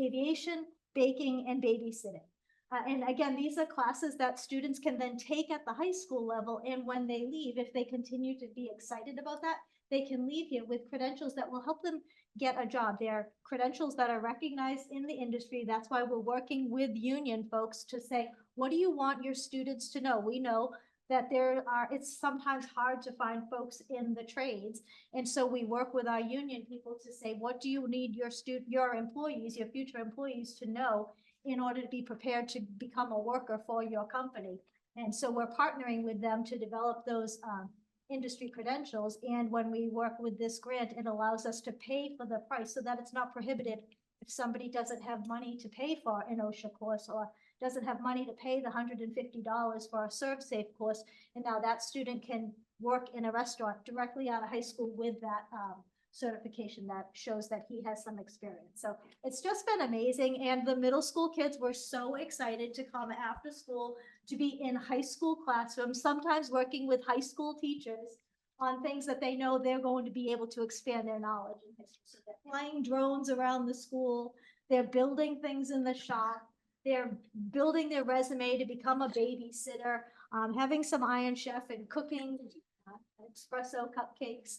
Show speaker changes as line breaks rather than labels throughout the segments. aviation, baking, and babysitting. Uh, and again, these are classes that students can then take at the high school level, and when they leave, if they continue to be excited about that, they can leave here with credentials that will help them get a job. They're credentials that are recognized in the industry. That's why we're working with union folks to say, what do you want your students to know? We know that there are, it's sometimes hard to find folks in the trades. And so we work with our union people to say, what do you need your student, your employees, your future employees to know in order to be prepared to become a worker for your company? And so we're partnering with them to develop those, um, industry credentials. And when we work with this grant, it allows us to pay for the price so that it's not prohibited if somebody doesn't have money to pay for an OSHA course or doesn't have money to pay the hundred and fifty dollars for a serve safe course. And now that student can work in a restaurant directly out of high school with that um certification that shows that he has some experience. So it's just been amazing. And the middle school kids were so excited to come after school to be in high school classrooms, sometimes working with high school teachers on things that they know they're going to be able to expand their knowledge. in history. So they're Flying drones around the school, they're building things in the shop, they're building their resume to become a babysitter, um, having some Iron Chef and cooking uh, espresso cupcakes.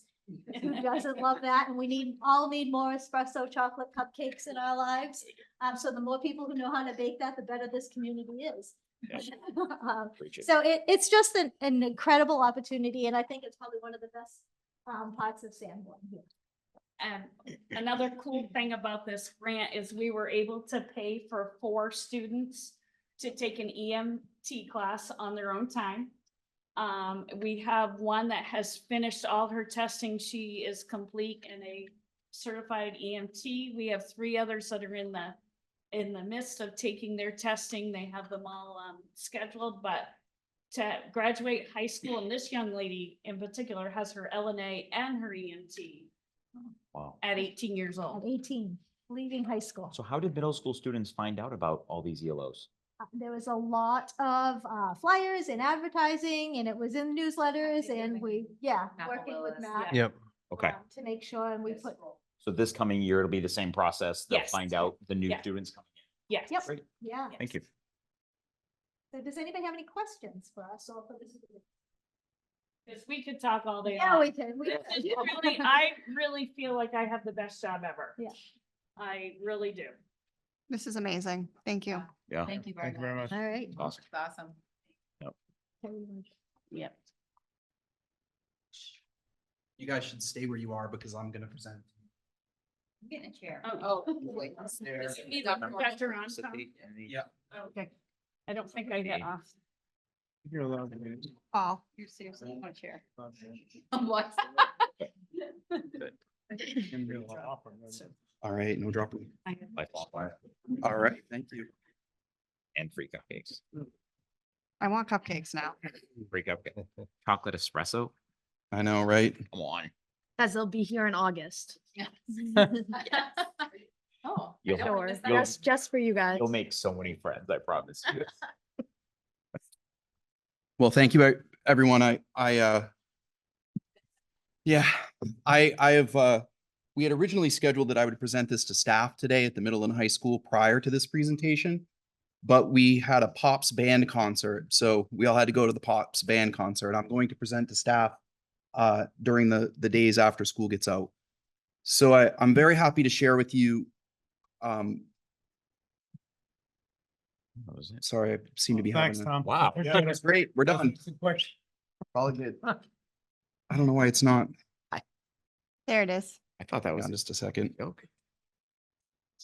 Who doesn't love that? And we need, all need more espresso chocolate cupcakes in our lives. Um, so the more people who know how to bake that, the better this community is. Um,
Preach it.
So it, it's just an, an incredible opportunity and I think it's probably one of the best, um, parts of Sanborn here.
Um, another cool thing about this grant is we were able to pay for four students to take an EMT class on their own time. Um, we have one that has finished all her testing. She is complete and a certified EMT. We have three others that are in the in the midst of taking their testing. They have them all um scheduled, but to graduate high school, and this young lady in particular has her LNA and her E EMT
Wow.
at eighteen years
At
old.
eighteen, leaving high school.
So how did middle school students find out about all these E ELOs?
Uh, There was a lot of, uh, flyers and advertising and it was in newsletters
think
and
we
we, yeah,
Matt
working with
Willis,
Matt.
yeah.
Yep.
Okay,
um, To make sure and we put,
so this coming year, it'll be the same process. They'll
Yes.
find out the new
Yeah.
students coming
Yes.
Yep.
Great.
yeah.
in. Thank you.
So does anybody have any questions for us or for this?
Because we could talk all day.
Yeah,
long.
we can. we
This
can.
is really- I really feel like I have the best job ever.
Yeah.
I really do.
This is amazing. Thank you.
Yeah.
Thank you very
Thank you very
much.
much.
All right.
Awesome.
It's Awesome.
Yep.
You guys should stay where you are because I'm gonna present.
I'm Getting a chair.
Oh,
wait.
There.
Does it need a projector on top?
Yeah.
Oh, Okay. I don't think I get off.
You're allowed to do
Paul.
You're seriously on a chair.
it.
I'm like.
Can be a lot awkward,
So-
right?
All right, no dropping. All right, thank you.
And free cupcakes,
I want cupcakes now.
free cupcake, chocolate espresso,
I know, right?
come on.
Because they'll be here in August.
Oh.
You'll-
I don't wanna miss that.
You'll-
That's just for you guys.
You'll make so many friends, I promise you.
Well, thank you, e- everyone. I, I, uh, yeah, I, I have, uh, we had originally scheduled that I would present this to staff today at the middle and high school prior to this presentation. But we had a Pops band concert, so we all had to go to the Pops band concert. I'm going to present to staff uh, during the, the days after school gets out. So I, I'm very happy to share with you, um,
That was it.
sorry, I seem to be
Thanks,
having. a-
Tom.
Wow.
Yeah, that's
That's great, we're done.
that's a good question.
All good. I don't know why it's not.
There it is.
I thought that
Hang
was
on
a
just a second.
joke.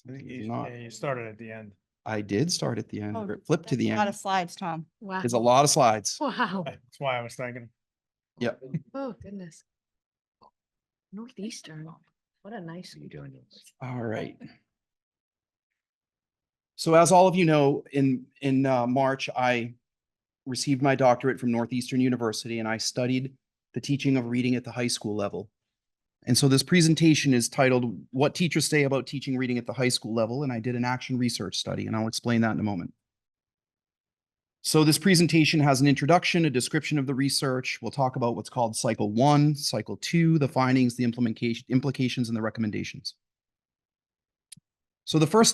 I think it's
You-
not.
yeah, You started at the end.
I did start at the end,
Oh,
or it flipped to the
A lot of
end.
slides, Tom.
Wow.
There's a lot of slides.
Wow.
That's why I was thinking.
Yep.
Oh, goodness. Northeastern. What a nice.
What are you doing to us?
All right. So as all of you know, in, in uh, March, I received my doctorate from Northeastern University and I studied the teaching of reading at the high school level. And so this presentation is titled, What Teachers Say About Teaching Reading at the High School Level, and I did an action research study, and I'll explain that in a moment. So this presentation has an introduction, a description of the research. We'll talk about what's called cycle one, cycle two, the findings, the implementation, implications, and the recommendations. So the first